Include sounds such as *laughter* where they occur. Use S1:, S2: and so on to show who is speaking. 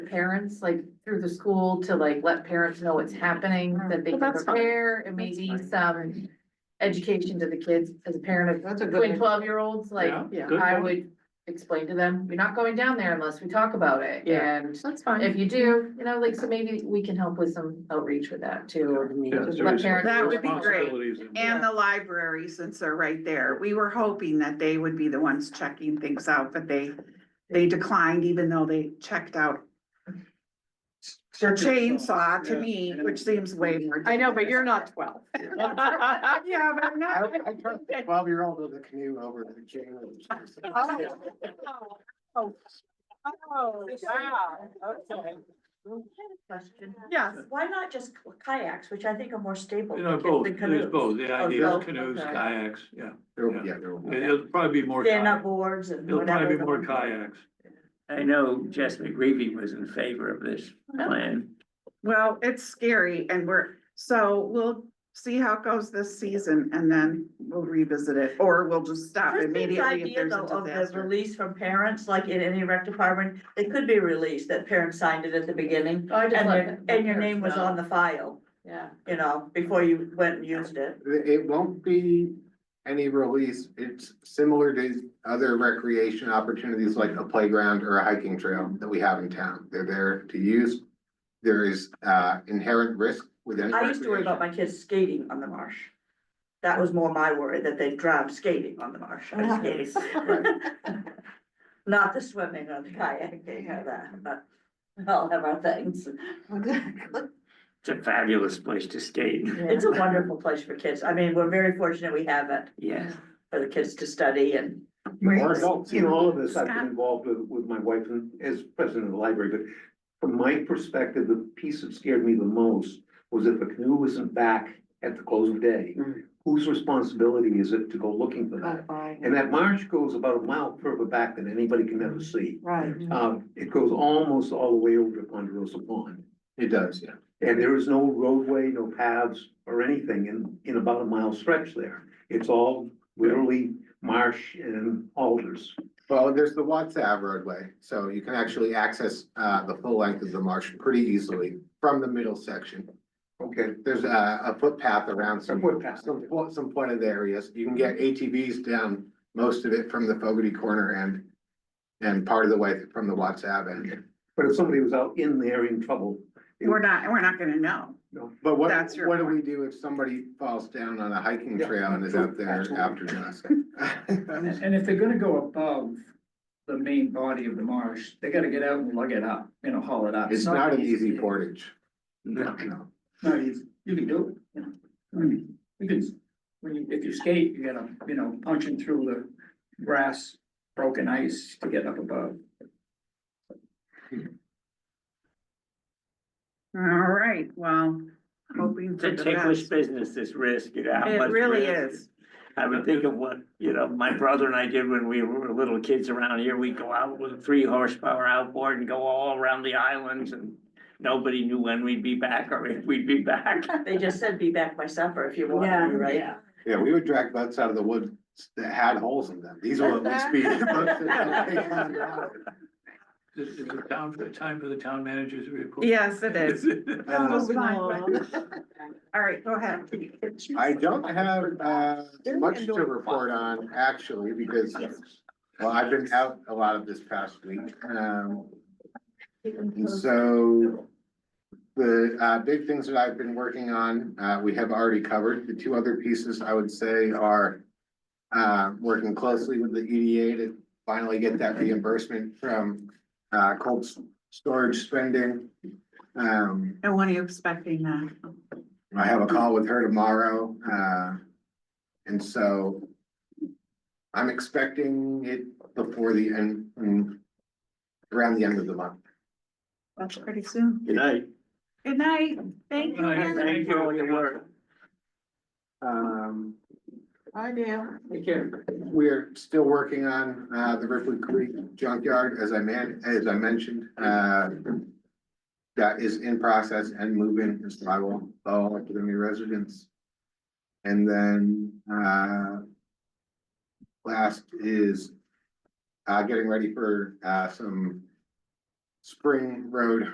S1: parents, like through the school to like let parents know what's happening, that they
S2: Well,
S1: can
S2: that's fine.
S1: prepare and
S2: That's
S1: maybe
S2: fine.
S1: some. Education to the kids as a parent
S2: That's a
S1: of
S2: good
S1: twin
S2: idea.
S1: twelve year olds, like
S3: Yeah,
S2: yeah,
S3: good
S1: I
S3: point.
S1: would explain to them, you're not going down there unless we talk about it.
S2: Yeah.
S1: And
S2: That's fine.
S1: if you do, you know, like, so maybe we can help with some outreach with that too.
S3: Yeah, it's a
S1: Let parents-
S4: That would be great.
S3: responsibilities and-
S4: And the library, since they're right there, we were hoping that they would be the ones checking things out, but they, they declined even though they checked out their chainsaw to me, which seems way more.
S2: I know, but you're not twelve.
S4: *laughs* Yeah, but I'm
S5: *laughs* I,
S4: not.
S5: I turned the twelve-year-old with a canoe over the chain.
S2: Oh, wow, okay.
S1: Question.
S2: Yes,
S6: Why not just kayaks, which I think are more stable?
S3: You know,
S6: than
S3: both,
S6: the
S3: there's
S6: canoes.
S3: both, the idea
S6: both,
S3: of canoes,
S1: okay.
S3: kayaks, yeah.
S5: yeah, there will be.
S3: It- It'll probably be more,
S6: Stand up
S3: kayak-
S6: boards and
S3: it'll
S6: whatever.
S3: probably be
S6: the-
S3: more kayaks.
S7: I know Jessica Grevy was in favor of this plan.
S4: Well, it's scary and we're, so we'll see how it goes this season and then we'll revisit it, or we'll just stop
S6: Just the
S4: immediately if
S6: idea
S4: there's
S6: though
S4: a
S6: of the
S4: disaster.
S6: release from parents, like in any rec department, it could be released that parents signed it at the beginning.
S1: Oh, I just
S6: And
S1: let
S6: your,
S1: the-
S6: and your name was on the file,
S1: Yeah.
S6: you know, before you went and used it.
S5: It it won't be any release. It's similar to other recreation opportunities like a playground or a hiking trail that we have in town. They're there to use. There is uh inherent risk with any
S6: I used to worry about
S5: recreation.
S6: my kids skating on the marsh. That was more my worry, that they drowned skating on the
S2: *laughs*
S6: marsh, or skating. *laughs* Not the swimming or the kayaking or that, but all of our things.
S7: It's a fabulous place to skate.
S6: It's a wonderful place for kids. I mean, we're very fortunate we have it
S7: Yes.
S6: for the kids to study and.
S8: Or adults, in all of this, I've been involved with, with my wife and as president of the library, but from my perspective, the piece that scared me the most was if a canoe isn't back at the close of day,
S3: Hmm.
S2: Mm.
S8: whose responsibility is it to go looking for that? And that marsh goes about a mile further back than anybody can ever see.
S2: Right.
S8: Um, it goes almost all the way over to Ponderosa Pond.
S5: It does, yeah.
S8: And there is no roadway, no paths or anything in, in about a mile stretch there. It's all literally marsh and alders.
S5: Well, there's the Watsav roadway, so you can actually access uh the full length of the marsh pretty easily from the middle section.
S8: Okay.
S5: There's a, a footpath around some,
S8: A footpath.
S5: some, pl- some pointed areas. You can get ATVs down most of it from the Fogarty corner end and part of the way from the Watts Ave end.
S8: But if somebody was out in there in trouble,
S4: We're not, we're not gonna know.
S5: But what,
S4: That's your
S5: what do we do if somebody falls down on a hiking
S8: Yeah,
S5: trail and is out there
S8: absolutely.
S5: after dusk?
S9: *laughs* And, and if they're gonna go above the main body of the marsh, they gotta get out and lug it up, you know, haul it
S5: *laughs*
S9: up.
S5: It's not an easy
S9: port.
S5: portage.
S7: No.
S5: No.
S9: Not easy, you can do it, you know, I mean, you can, when you, if you skate, you gotta, you know, punching through the grass, broken ice to get up above.
S4: All right, well, hoping
S7: It's
S4: for
S7: a
S4: the
S7: ticklish
S4: best.
S7: business, this risk, you know. how
S4: It
S7: much
S4: really
S7: risk.
S4: is.
S7: I would think of what, you know, my brother and I did when we were little kids around here. We'd go out with a three horsepower outboard and go all around the islands and nobody knew when we'd be back or if we'd be *laughs* back.
S6: They just said be back by supper if you want,
S2: Yeah.
S6: right?
S5: Yeah, we would drag boats out of the woods that had holes in them. These will at least be. *laughs* boats that don't take on water.
S3: Is is it down for the time for the town manager's report?
S4: Yes, it is.
S5: Uh,
S4: Moving on. All right, go ahead.
S5: I don't have, uh, much to report on actually because, well, I've been out a lot of this past week. Um, and so the, uh, big things that I've been working on, uh, we have already covered. The two other pieces I would say are, uh, working closely with the EDA to finally get that reimbursement from, uh, cold s- storage spending. Um,
S4: And when are you expecting uh, that?
S5: I have a call with her tomorrow, uh, and so I'm expecting it before the end, mm, around the end of the month.
S4: That's pretty soon.
S7: Good night.
S4: Good night. Thank you.
S3: Good night.
S4: Heather.
S7: Thank you for all your work.
S5: Um,
S2: I do.
S7: Take care.
S5: we are still working on, uh, the Ripley Creek junkyard, as I man, as I mentioned, uh, that is in process and moving, and so I will follow up with the new residents. And then, uh, last is, uh, getting ready for, uh, some Spring Road